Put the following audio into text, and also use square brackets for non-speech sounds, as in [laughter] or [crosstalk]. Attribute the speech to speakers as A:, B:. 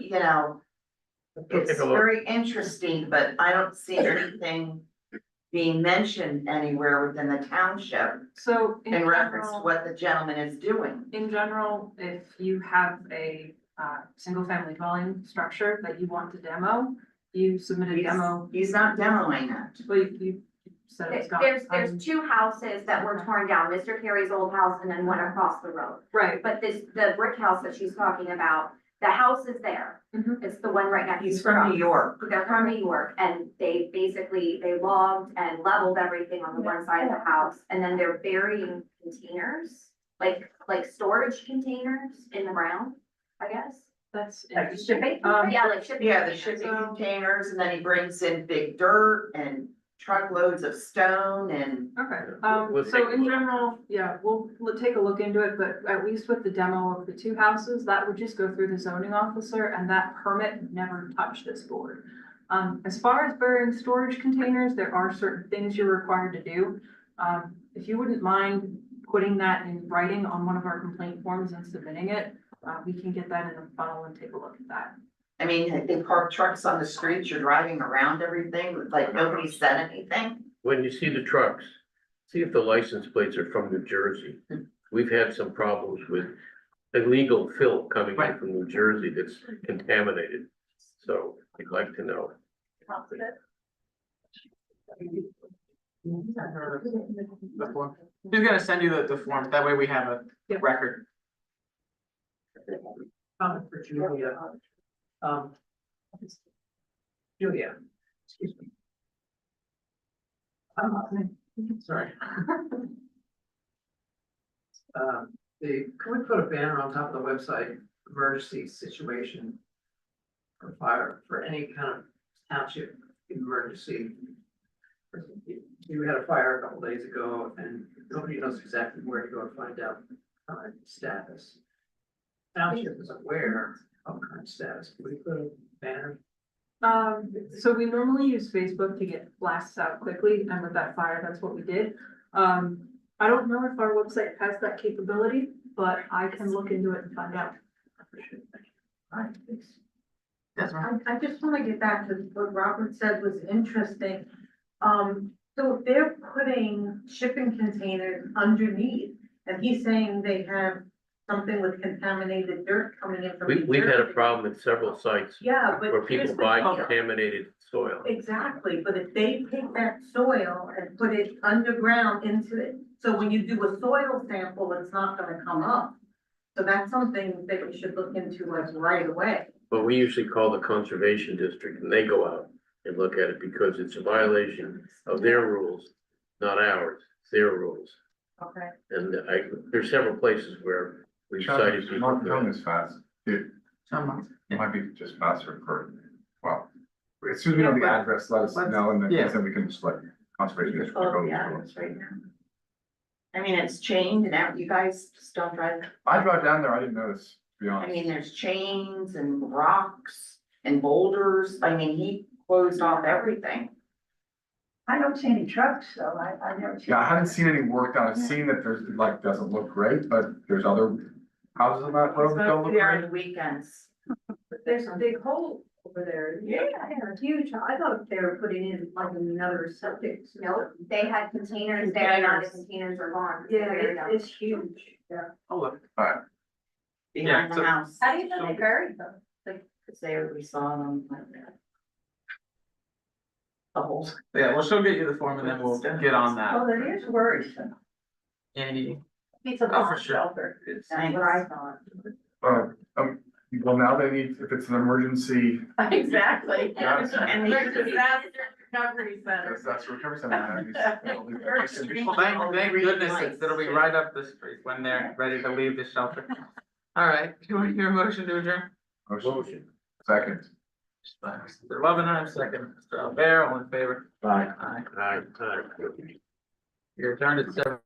A: you know,
B: Go
A: it's
B: take a look.
A: very interesting, but I don't
B: [laughs]
A: see anything being mentioned anywhere within the township
C: So in
A: in reference to
C: general,
A: what the gentleman is doing.
C: in general, if you have a uh single family dwelling structure that you want to demo, you submit a
A: He's-
C: demo,
A: He's not demoing it.
C: well, you you said it was gone.
D: There's,
C: Um,
D: there's two houses that were torn down, Mr. Carey's old house and then one across the road.
C: Right,
D: But this, the brick house that she's talking about, the house is there.
C: Mhm.
D: It's the one right next
A: Mm-hmm.
D: to.
A: He's from New York.
D: They're from New York and they basically, they logged and leveled everything on the one side of the house. And then they're burying containers, like, like storage containers in the ground, I guess.
C: that's
A: Like
C: interesting. Um,
D: Yeah, like shipping.
A: Yeah, the
D: containers.
A: shipping containers and then he brings in big dirt and truckloads of stone and
C: Okay,
B: Yeah,
C: um,
B: we'll take
C: so
B: a
C: in
B: look.
C: general, yeah, we'll, we'll take a look into it, but at least with the demo of the two houses, that would just go through the zoning officer and that permit never touched this board. Um, as far as burying storage containers, there are certain things you're required to do. Um, if you wouldn't mind putting that in writing on one of our complaint forms and submitting it, uh, we can get that in the funnel and take a look at that.
A: I mean, they park trucks on the streets, you're driving around everything, like nobody said anything.
B: When you see the trucks, see if the license plates are from New Jersey.
E: Hmm.
B: We've had some problems with illegal fill coming in
A: Right.
B: from New Jersey that's contaminated. So we'd like to know.
F: The form. He's gonna send you the, the form, that way we have a
C: Yeah.
F: record.
G: comment for Julia. Um. Julia, excuse me. Um, sorry. [laughs] Um, the, can we put a banner on top of the website, emergency situation? For fire, for any kind of township emergency. We had a fire a couple days ago and nobody knows exactly where to go to find out current status township is aware of current status, we put a banner.
C: Um, so we normally use Facebook to get blasts out quickly, and with that fire, that's what we did. Um, I don't know if our website has that capability, but I can look into it and find out.
E: I- it's-
F: That's right.
E: I, I just wanna get back to what Robert said was interesting. Um, so if they're putting shipping containers underneath, and he's saying they have something with contaminated dirt coming in from.
B: We,
E: New
B: we've had a
E: Jersey.
B: problem at several sites
E: Yeah, but.
B: where people
E: here's the
B: buy
E: deal.
B: contaminated soil.
E: Exactly, but if they take that soil and put it underground into it, so when you do a soil sample, it's not gonna come up. So that's something that you should look into like right away.
B: But we usually call the conservation district and they go out and look at it because it's a violation of their rules, not ours, their rules.
E: Okay.
B: And I, there's several places where we've cited
H: It's
B: people.
H: Not
B: for that.
H: coming as fast, it
F: Someone-
H: might be just faster for, well, as soon as we know the
F: Yeah, but-
H: address, let us
F: let's-
H: know, and then,
F: yeah.
H: then we can just like conservation district.
A: Oh,
H: go
A: yeah,
H: through.
A: that's right now. I mean, it's chained and out, you guys just don't drive,
H: I drive down there, I didn't notice, to be
A: I mean,
H: honest.
A: there's chains and rocks and boulders, I mean, he closed off everything.
E: I don't see any trucks, though, I, I never.
H: Yeah, I haven't seen any work done, I've seen that there's, it, like, doesn't look great, but there's other houses on that road that Uh, don't look
A: There on
H: great.
A: the weekends.
E: There's a big hole over there. Yeah, huge, I thought they were putting in like another septic.
D: No, they had containers there, now the
A: Containers.
D: containers are gone.
E: it's huge, yeah.
F: Oh, look, Yeah,
A: behind the
F: so-
A: house,
D: How do you know they buried them?
A: because there we saw them like that. The whole.
F: yeah, we'll still get you the form and then we'll get on that.
E: that is worrisome.
F: Any,
E: It's
B: Oh,
F: a bomb shelter. it's,
A: That's what I thought.
H: Uh, um, well, now they need, if it's an emergency,
E: Exactly.
H: Yes.
A: And the
F: [laughs]
A: disaster
E: recovery
H: that's, that's recovery center.
F: [laughs]
H: that needs-
F: well, thank, thank goodness, it's- it'll be right up the street when they're ready to leave the shelter. All right, do you want to hear a motion to adjourn?
H: Motion, second.
F: Mr. Loveenheim, second, Mr. Albert, all in favor?
H: Bye.
F: Aye.
B: Aye, aye.
F: You're adjourned at seven.